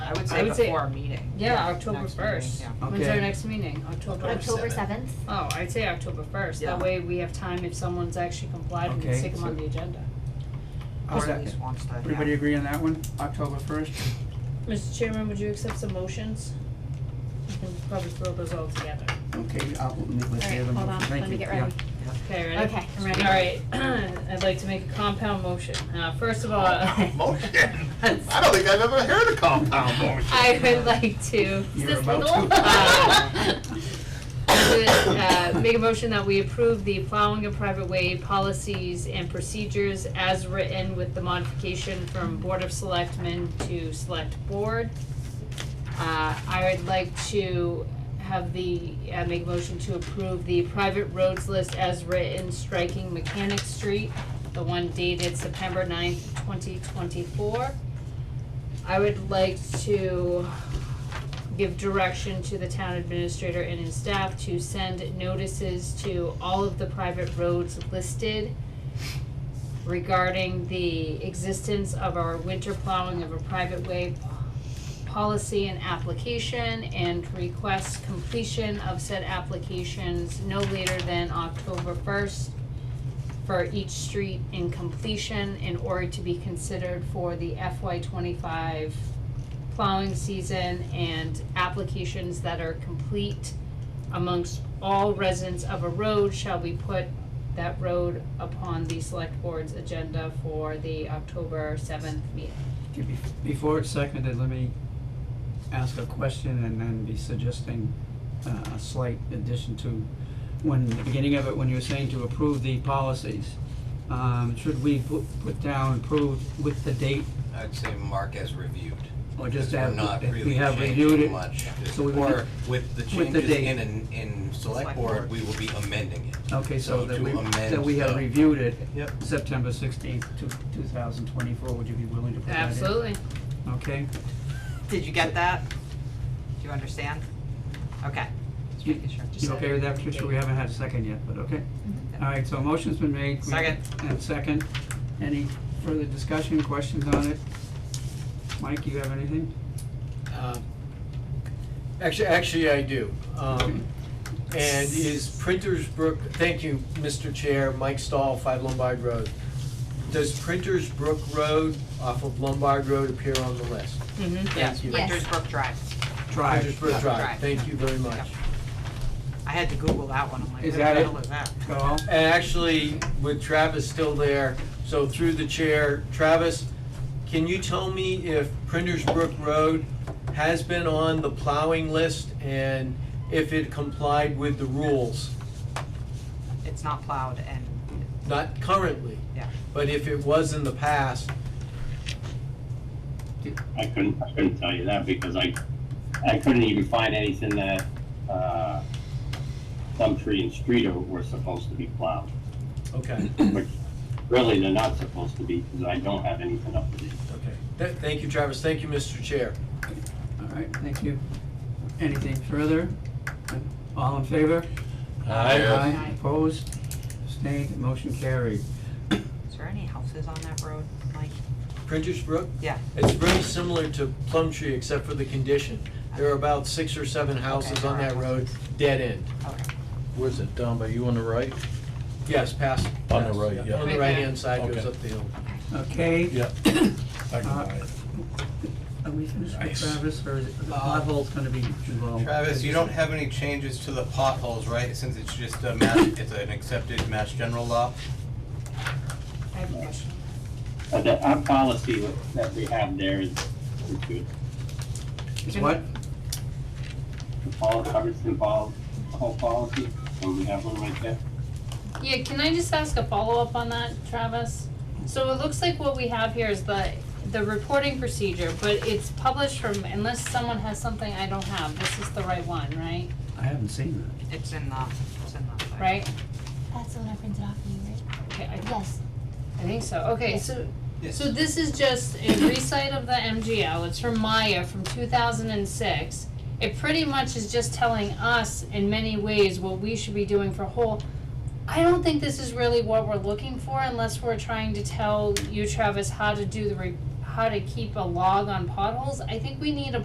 I October would say- before our meeting. Yeah, October Next meeting, first. yeah. When's our Okay. next meeting? October? October seventh. Oh, I'd say October first, Yeah. that way we have time if someone's actually complied, we can Okay, stick them so- on the agenda. I'll Or at second. least wants to, Everybody yeah. agree on that one? October first? Mr. Chairman, would you accept some motions? You can probably throw those all together. Okay, I'll, let's hear Alright, them. hold on, Thank let me you. get Yeah. ready. Okay, ready? Okay, I'm ready. Alright, I'd like to make a compound motion, uh, first of all. Motion. I don't think I've ever heard a compound motion. I would like to. You're this about legal? to. uh, uh, Make a motion that we approve the plowing of private way policies and procedures as written with the modification from Board of Selectmen to Select Board. Uh, I would like to have the, uh, make a motion to approve the private roads list as written, striking Mechanic Street, the one dated September 9th, twenty twenty-four. I would like to give direction to the town administrator and his staff to send notices to all of the private roads listed regarding the existence of our winter plowing of a private way policy and application and request completion of said applications no later than October first for each street in completion in order to be considered for the FY twenty-five plowing season and applications that are complete amongst all residents of a road shall we put that road upon the select board's agenda for the October seventh meeting. Okay, bef- Before it's seconded, let me ask a question and then be suggesting uh, a slight addition to, when, the beginning of it, when you were saying to approve the policies, um, should we pu- put down approved with the date I'd say mark as reviewed. or just We're add, not that we really have reviewed changing it? much. so we would- Or with the with the changes date. in, an- in select Select board, board. we will be amending it. Okay, so So that to we, that amend we have the- reviewed it. Yep. September sixteenth, two, two thousand twenty-four, would you be willing to put that in? Absolutely. Okay, Did you get that? Do you understand? Okay. Just You- making sure. you okay with that, Patricia? We haven't had a second Mm-hmm. yet, but okay. All right, so a motion's been made. We- Second. And second. Any further discussion, questions on it? Mike, you have anything? Um, Actually, actually, I do. Um, And is Printers Brook, thank you, Mr. Chair, Mike Stahl, Five Lombard Road. Does Printers Brook Road off of Lombard Road appear on the list? Mm-hmm. Yes, you. Printers Brook Drive. Drive. Printers Brook Drive, Drive. thank you very much. Yep. I had to Google that one, I'm like, what Is the that it? hell is that? Go. And actually, with Travis still there, so through the chair, Travis, can you tell me if Printers Brook Road has been on the plowing list and if it complied with the rules? It's not plowed and, Not currently, yeah. but if it was in the past, I couldn't, I couldn't tell you that because I, I couldn't even find anything that, uh, Plumtree and Streeter were supposed to be plowed, okay, which really they're not supposed to be because I don't have anything up to date. okay. Th- Thank you, Travis, thank you, Mr. Chair. All right, thank you. Anything further? All in favor? Aye, opposed, abstained, motion carried. Is there any houses on that road, Mike? Printers Brook, Yeah, it's very similar to Plumtree except for the condition. There are about six or seven houses Okay. on that road, dead end. okay. Where's it, down by you on the right? Yes, past. On the past, right, yeah. On the Right right-hand side goes Okay. up the hill. Okay? Yeah. I can Uh, buy it. Are we finished with Nice. Travis or is it- the Uh, pothole's gonna be involved? Travis, you don't have any changes to the potholes, right, since it's just a mass, it's an accepted mass general law? I have a question. But that, our policy that we have there is, is good. It's what? The pol covers involved, the whole policy, and we have one right there. Yeah, can I just ask a follow-up on that, Travis? So it looks like what we have here is the, the reporting procedure, but it's published from, unless someone has something I don't have, this is the right one, right? I haven't seen It's in the, it's in the. Right? That's the one I printed off for you, right? Okay, I, Yes. I think so, okay, so, Yes. so this is just a recite of the MGL, it's from Maya from two thousand and six. It pretty much is just telling us in many ways what we should be doing for whole. I don't think this is really what we're looking for unless we're trying to tell you, Travis, how to do the re- how to keep a log on potholes. I think we need a